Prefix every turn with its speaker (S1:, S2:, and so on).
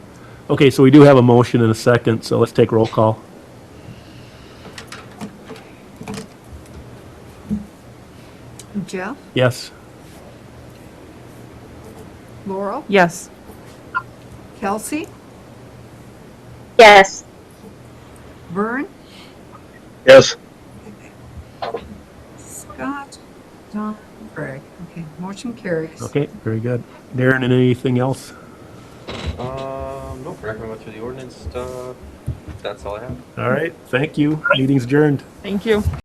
S1: Okay, so we do have a motion and a second, so let's take roll call.
S2: Jeff,
S1: Yes?
S2: Laurel,
S3: Yes.
S2: Kelsey,
S4: Yes.
S2: Vern,
S5: Yes.
S2: Scott, Don, Greg. Okay, motion carries.
S1: Okay, very good. Darren, and anything else?
S6: Um, nope, Rick, we went through the ordinance stuff. That's all I have.
S1: All right, thank you. Meeting's adjourned.
S3: Thank you.